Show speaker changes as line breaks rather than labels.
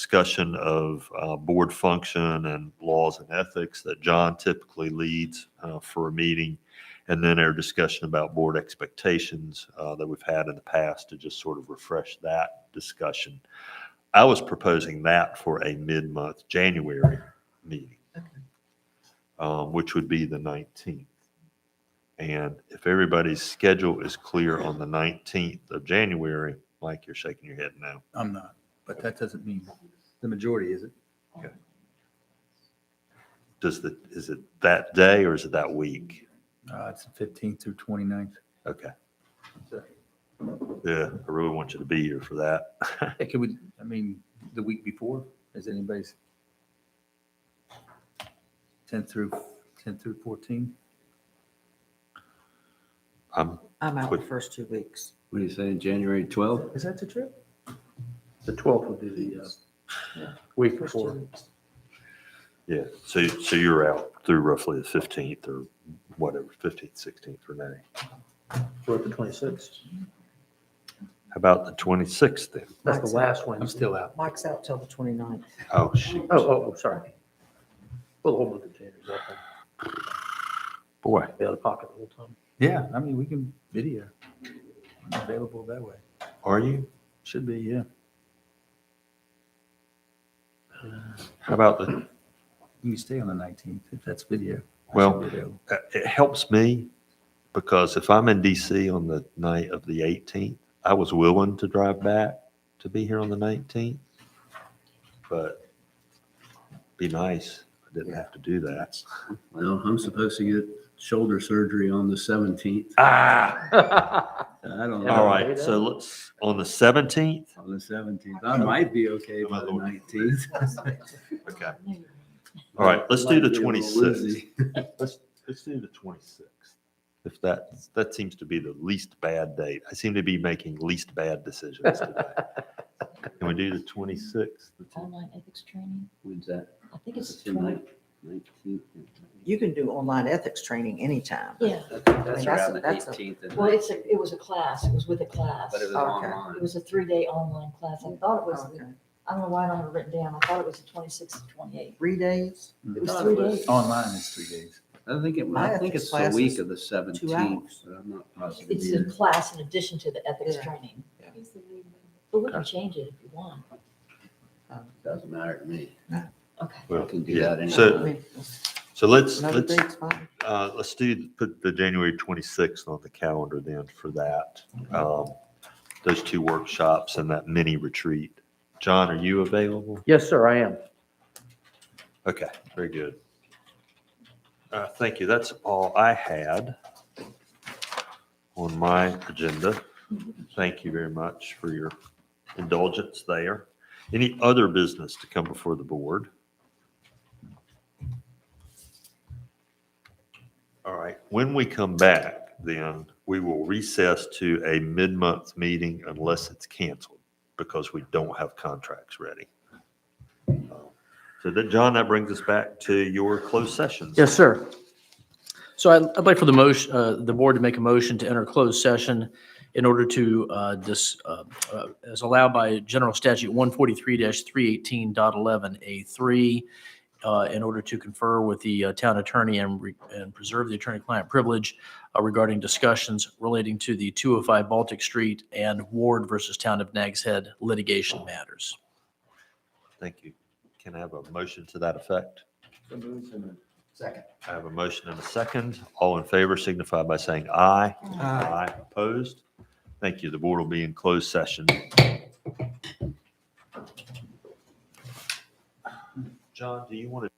discussion of uh, board function and laws and ethics that John typically leads uh, for a meeting, and then our discussion about board expectations uh, that we've had in the past to just sort of refresh that discussion. I was proposing that for a mid-month January meeting, um, which would be the 19th. And if everybody's schedule is clear on the 19th of January, Mike, you're shaking your head no.
I'm not, but that doesn't mean the majority, is it?
Does the, is it that day or is it that week?
Uh, it's the fifteenth through twenty-ninth.
Okay. Yeah, I really want you to be here for that.
Yeah, can we, I mean, the week before, is anybody's? Tenth through, ten through fourteen?
I'm,
I'm out the
Quick.
first two weeks.
What are you saying, January 12th?
Is that the trip?
The 12th would be the uh, week
First two
before.
weeks.
yeah, so, so you're out through roughly the 15th or whatever, 15th, 16th or May.
We're at the 26th.
How about the 26th then?
That's the last one.
I'm still out.
Mike's out till the 29th.
Oh, shoot.
Oh, oh, oh, sorry. Well, the whole month of January.
Boy.
Be out of pocket the whole time.
Yeah, I mean, we can video. I'm Available that way.
Are you?
Should be, yeah.
How about the,
You can stay on the nineteenth if that's video. I should
Well-
be available.
uh, it helps me because if I'm in DC on the night of the 18th, I was willing to drive back to be here on the 19th. But be nice. I didn't have to do that.
Well, I'm supposed to get shoulder surgery on the 17th.
Ah!
I don't
All
know,
Yeah,
right, so let's, on the 17th?
on the 17th. I might be okay by the 19th.
Okay. All right, let's do the
Might be a little
26th.
woozy.
Let's, let's do the 26th. If that, that seems to be the least bad date. I seem to be making least bad decisions today. Can we do the 26th?
online ethics training.
When's that?
I think it's
It's
the
the
20
19th.
You can do online ethics training anytime.
Yeah,
mean,
That's
that's-
around the
that's a-
18th, isn't
well,
it?
it's a, it was a class, it was with a class.
but it was
okay.
It
online.
was a three-day online class. I thought it was,
Oh, Okay.
I don't know why I don't have it written down. I thought it was the twenty-sixth and twenty-eighth.
Three days,
It was
thought Mm-hmm. it
three
was-
days.
Online is three days.
I think it,
My
I think
ethics
it's the
class is
week of the 17th,
hours.
but I'm not positive.
It's a
either.
class in addition to the ethics
Yeah.
training.
Yeah.
But we can change it if you want.
Doesn't matter to me.
Okay.
I
Well,
can do
yeah.
that anytime.
I
So,
mean,
so let's,
another
let's,
date's fine.
Uh, let's do, put the January 26th on the calendar then for that. Um, Those two workshops and that mini retreat. John, are you available?
Yes, sir, I am.
Okay, very good. Uh, Thank you. That's all I had on my agenda. Thank you very much for your indulgence there. Any other business to come before the board? All right, when we come back, then we will recess to a mid-month meeting unless it's canceled because we don't have contracts ready. So that, John, that brings us back to your closed sessions.
Yes, sir. So I- I'd like for the motion, uh, the board to make a motion to enter closed session in order to, uh, dis, uh, uh, as allowed by General Statute 143-318.11A3, uh, in order to confer with the uh, town attorney and, re- and preserve the attorney-client privilege uh, regarding discussions relating to the 205 Baltic Street and Ward versus Town of Nags Head litigation matters.
Thank you. Can I have a motion to that effect?
Second.
I have a motion and a second. All in favor signify by saying aye. Aye. Opposed? Thank you. The board will be in closed session. John, do you want to?